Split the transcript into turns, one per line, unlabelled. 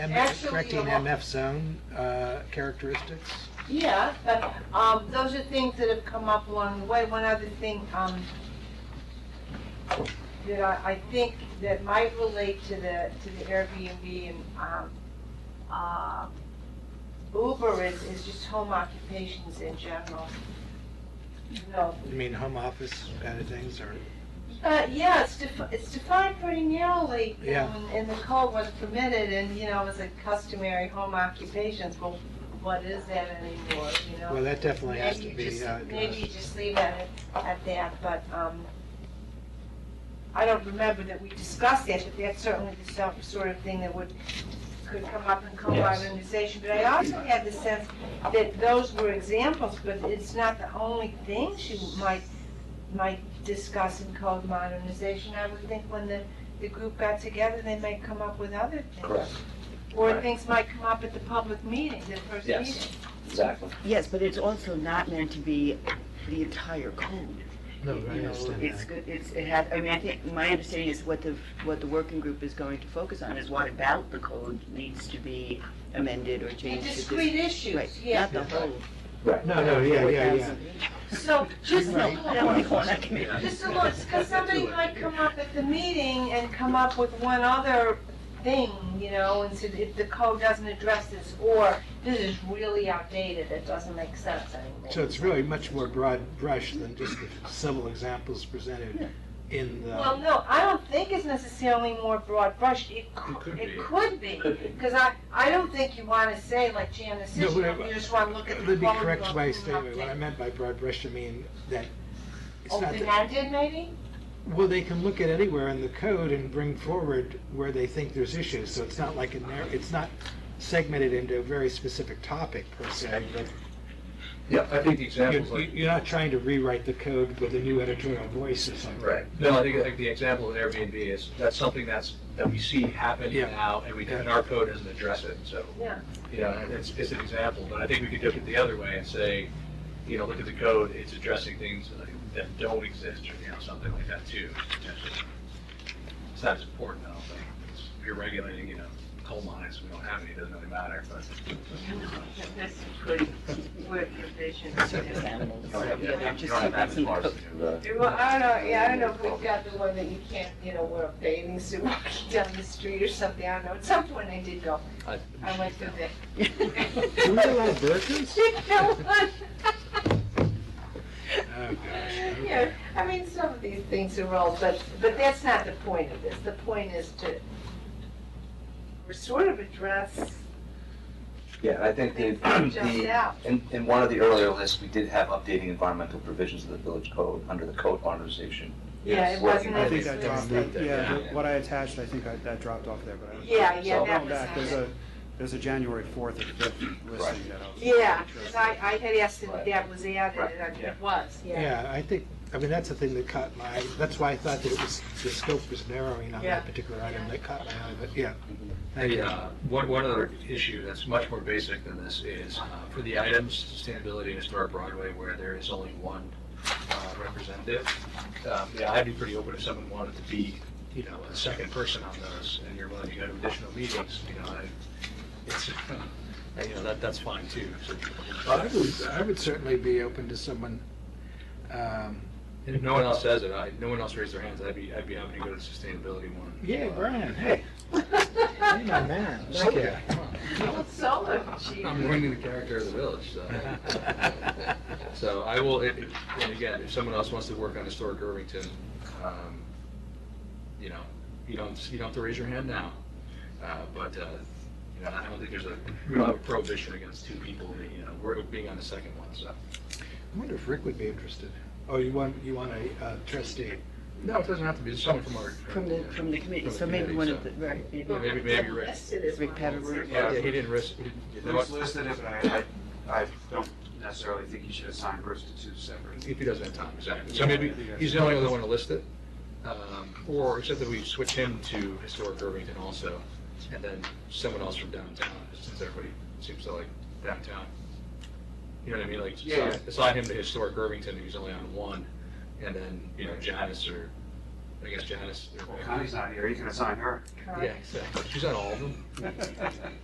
M-
Actually,
Correcting
you know-
MF zone uh, characteristics.
Yeah, but, um, those are things that have come up along the way. One other thing, um, that I, I think that might relate to the, to the Airbnb and, um, uh, Uber is, is just home occupations in general. You know,
You mean home office kind of things or,
uh, yeah, it's defi- it's defined pretty narrowly, you
Yeah.
know, in, in the code what's permitted and, you know, as a customary home occupations, well, what is that anymore, you know?
well, that definitely has to
Maybe
be
you just-
uh,
Maybe you
addressed.
just leave it at that, but, um, I don't remember that we discussed that, but that's certainly the self- sort of thing that would, could come up in co-modernization. But I also had the sense that those were examples, but it's not the only things you might, might discuss in code modernization. I would think when the, the group got together, they might come up with other things.
Correct,
Or
Right.
things might come up at the public meeting, the first
Yes.
meeting.
exactly.
Yes, but it's also not meant to be the entire code.
No,
You
I
know,
understand
It's,
that.
good- it's, it had, I mean, I think, my understanding is what the, what the working group is going to focus on is what about the code needs to be amended or
The
changed. to this-
discrete
Right,
issues, yeah.
not the whole.
Right.
No, no, Oh, yeah, yeah, yeah.
4,000.
So,
Just
just
the
a
whole corner
Just a little, because somebody might come up at the meeting and come up with one other thing, you know, and said, if the code doesn't address this, or this is really outdated, it doesn't make sense anymore.
So it's really much more broad brush than just the several examples presented in
Well,
the,
no, I don't think it's necessarily more broad brush, it could, it could be, because I, I don't think you wanna say like jam the
No,
system,
but-
you just wanna look at the
let
code.
me correct
book
my
and
statement. What I
update. Oh,
meant by broad brush, I mean that it's not that
Open-ended, maybe?
Well, they can look at anywhere in the code and bring forward where they think there's issues, so it's not like a narrow, it's not segmented into a very specific topic per se, but
Yeah, I think
you're,
the examples like.
you're not trying to rewrite the code with a new editorial voice or something.
Right. No, I think, I think the example of Airbnb is, that's something that's, that we see happen
Yeah.
now, and we, and our code doesn't address it, so.
Yeah.
You know, it's, it's an example, but I think we could look at the other way and say, you know, look at the code, it's addressing things that don't exist, or, you know, something like that too, potentially. It's not as important, I don't think. It's- If you're regulating, you know, coal mines, we don't have any, it doesn't really matter, but.
This could work provision.
circus animals,
Right,
you know,
Oh, Yeah,
they're
you
just
don't have that as
using
far as,
code.
Right.
Well, I don't know, Uh, yeah, I don't know if we've got the one that you can't, you know, wear a bathing suit walking down the street or something, I don't know, at some point I did go,
I-
I went through that.
There was a lot of burkas? Oh, gosh.
Yeah, I mean, some of these things are all, but, but that's not the point of this, the point is to sort of address
Yeah, I think the,
things that jumped
the,
out.
in, in one of the earlier lists, we did have updating environmental provisions of the village code under the code modernization.
Yeah, it
working
wasn't
I
with-
think
Yeah,
I
it's mixed
dropped it,
up
there.
yeah,
Yeah.
the- what I attached, I think I, that dropped off there, but I.
Yeah, yeah,
So I'll
that
go
was
back.
not
There's
it.
a, there's a January fourth or fifth listing that I was.
Yeah, 'cause I, I had asked if
Right.
that was added,
Right,
and I-
yeah.
it was, yeah.
Yeah, I think, I mean, that's the thing that caught my, eye. that's why I thought that it was, the scope was narrowing on
Yeah.
that particular item, that caught my eye, but yeah. Thank
Hey,
you.
uh, one, one other issue that's much more basic than this is, uh, for the items, sustainability and historic Broadway, where there is only one, uh, representative. Um, yeah, I'd be pretty open if someone wanted to be, you know, a second person on those, and you're willing to go to additional meetings, you know, I, it's, you know, that, that's fine too. So,
I would, I would certainly be open to someone, um,
And if no one else says it, I, no one else raised their hands, I'd be, I'd be happy to go to the sustainability one.
Yeah, Brian, hey. Hey, my man. Thank you.
Well, solo, chief.
I'm ruining the character of the village, so. So I will, it- it- and again, if someone else wants to work on historic Irvington, um, you know, you don't, you don't have to raise your hand now. Uh, But, uh, you know, I don't think there's a, we don't have a prohibition against two people, you know, we're being on the second one, so.
I wonder if Rick would be interested. Oh, you want, you want a uh, trustee?
No, it doesn't have to be, it's someone from our.
From the, from the committee, so maybe one of the, right.
Yeah,
maybe-
Maybe, maybe Rick.
Let's do this
Rick
one.
Paverberg.
Yeah, he didn't risk, he didn't- you know
It's
what?
listed, but I, I, I don't necessarily think you should assign Bruce to two separate.
if he doesn't have time, exactly. So maybe, he's the only other one to list it. Um, Or, except that we switch him to historic Irvington also, and then someone else from downtown, since everybody seems to like downtown. You know what I mean, like,
Yeah, yeah.
assign- assign him to historic Irvington, who's only on one, and then, you know, Janice or I guess Janice.
Well, Connie's not here, you can assign her.
Yeah, exactly. She's on all of them.